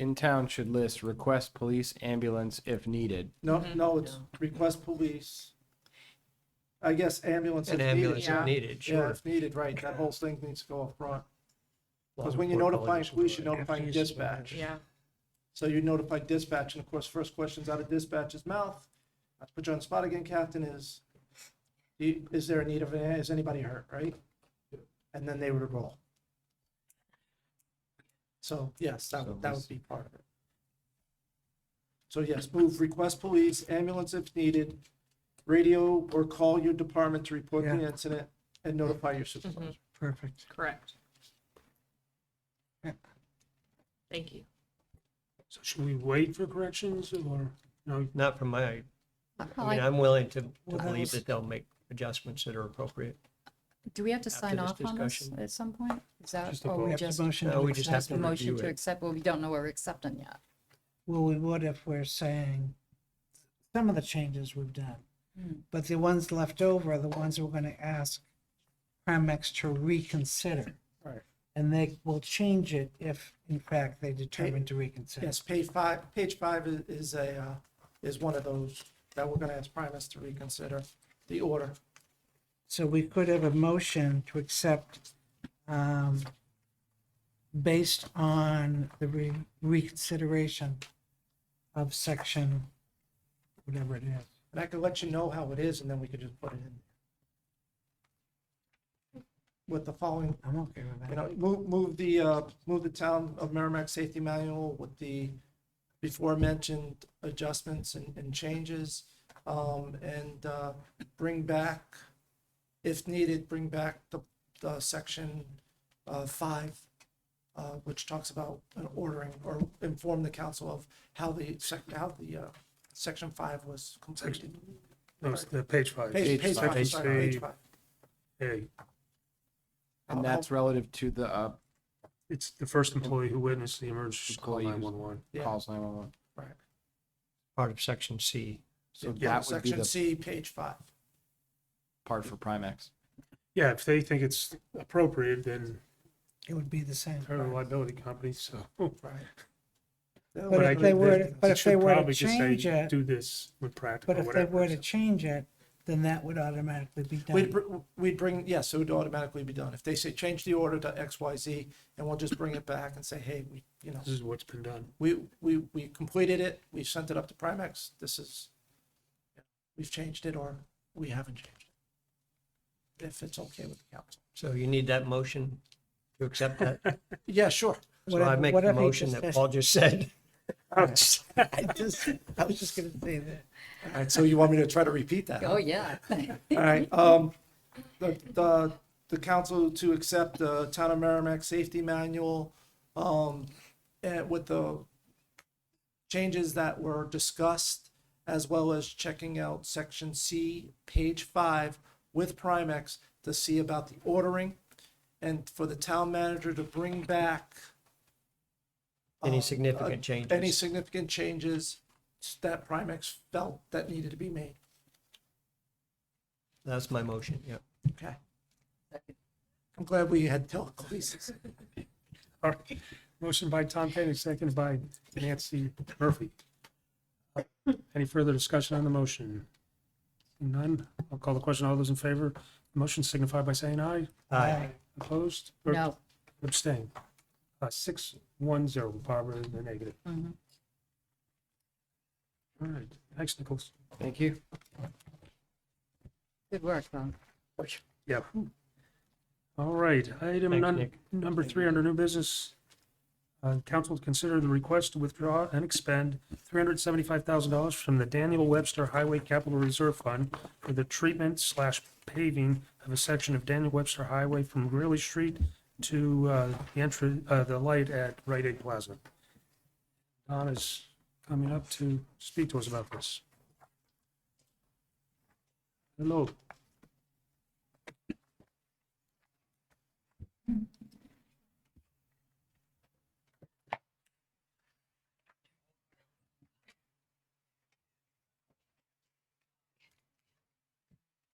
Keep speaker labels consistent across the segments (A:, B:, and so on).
A: in town should list request police ambulance if needed.
B: No, no, it's request police. I guess ambulance if
C: An
B: needed.
C: ambulance if
B: Yeah,
C: needed,
B: Yeah,
C: sure.
B: if needed, right, that whole thing needs to go up front. Because
C: Law
B: when you're
C: enforcement
B: notifying
C: officers.
B: police, you're notifying dispatch.
D: Yeah,
B: So you notify dispatch, and of course, first question's out of dispatch's mouth. Not to put you on the spot again, Captain, is, do you- is there a need of, an- is anybody hurt, right? And then they would roll. So, yes, that would, that would be part of it. So yes, move request police, ambulance if needed, radio or call your department to report the
E: Yeah.
B: incident and notify your supervisor.
E: Perfect.
D: correct.
E: Yeah.
D: Thank you.
E: So should we wait for corrections or, no?
C: Not from my, I mean,
F: Like,
C: I'm willing to, to
E: Well, that
C: believe
E: was-
C: that they'll make adjustments that are appropriate.
F: do we have to
C: after
F: sign
C: this
F: off on this
C: discussion-
F: at some point? Is that,
E: Just a
F: or we
E: vote.
F: just?
G: motion
C: No,
G: to
C: we just have
F: That's
C: to
F: the motion
C: review
F: to
C: it.
F: accept, but we don't know what we're accepting yet.
G: Well, we would if we're saying some of the changes we've done. But the ones left over are the ones we're gonna ask Primex to reconsider.
B: Right.
G: And they will change it if in fact they determine to reconsider.
B: Yes, page five, page five is, is a, uh, is one of those that we're gonna ask Primus to reconsider the order.
G: So we could have a motion to accept, um, based on the re- reconsideration of section, whatever it is.
B: And I could let you know how it is and then we could just put it in. With the following,
G: I'm okay with
B: you
G: that.
B: know, move, move the, uh, move the town of Merrimack Safety Manual with the before mentioned adjustments and, and changes. Um, and, uh, bring back, if needed, bring back the, the section, uh, five, uh, which talks about an ordering or inform the council of how the sec, how the, uh, section five was completed.
E: No, it's the page five.
B: Page, page five,
E: Page
B: sorry, page
E: three,
B: five.
E: A.
B: I'll- Oh.
A: And that's relative to the, uh,
E: It's the first employee who witnessed the emergency should call
A: Employees.
E: nine one one.
B: Yeah.
A: calls nine-one-one.
B: Right.
C: Part of section C.
A: So
E: Yeah,
A: that would be
B: Section
A: the
B: C, page five.
A: part for Primex.
E: Yeah, if they think it's appropriate, then
G: It would be the same.
E: they're a liability company, so.
B: Right.
G: But
E: I
G: if they
E: think
G: were,
E: that
G: but
E: it
G: if
E: should
G: they were to
E: probably just say,
G: change it,
E: Do this when practical,
G: but if they
E: whatever.
G: were to change it, then that would automatically be
B: We'd,
G: done.
B: br- we'd bring, yes, it would automatically be done. If they say, change the order to X, Y, Z, and we'll just bring it back and say, hey, we, you know,
E: This is what's been done.
B: we, we, we completed it, we sent it up to Primex, this is, we've changed it, or we haven't changed it. If it's okay with the council.
C: So you need that motion to accept that.
B: Yeah, sure.
C: So I
G: Whatever-
C: make the
G: whatever he
C: motion
G: just
C: that
G: said.
C: Paul just said.
G: I just, I was just gonna say that.
B: All right, so you want me to try to repeat that?
E: Uh-huh.
B: huh?
F: Oh, yeah.
B: All right, um, the, the, the council to accept the Town of Merrimack Safety Manual, um, and with the changes that were discussed, as well as checking out section C, page five, with Primex to see about the ordering, and for the town manager to bring back
C: Any
B: um,
C: significant
B: uh,
C: changes.
B: Any significant changes that Primex felt that needed to be made.
C: That's my motion, yeah.
B: Okay. I'm glad we had telekinesis.
E: All right. Motion by Tom Petty, seconded by Nancy Murphy. Any further discussion on the motion? None. I'll call the question. All those in favor, motion signify by saying aye.
C: Aye.
E: Opposed? or
F: No,
E: Abstain. Uh, six, one, zero. Barbara in the negative. All
F: Mhm.
E: right. Thanks, Nichols.
A: Thank you.
F: good work, though.
E: Yep. All right, item
C: Thanks,
E: nun-
C: Nick.
E: number three under new business. Uh, council to consider the request to withdraw and expend three hundred seventy-five thousand dollars from the Daniel Webster Highway Capital Reserve Fund for the treatment slash paving of a section of Daniel Webster Highway from Greeley Street to, uh, the entry, uh, the light at Rite Aid Plaza. Don is coming up to speak to us about this. Hello.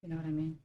F: You know what I mean?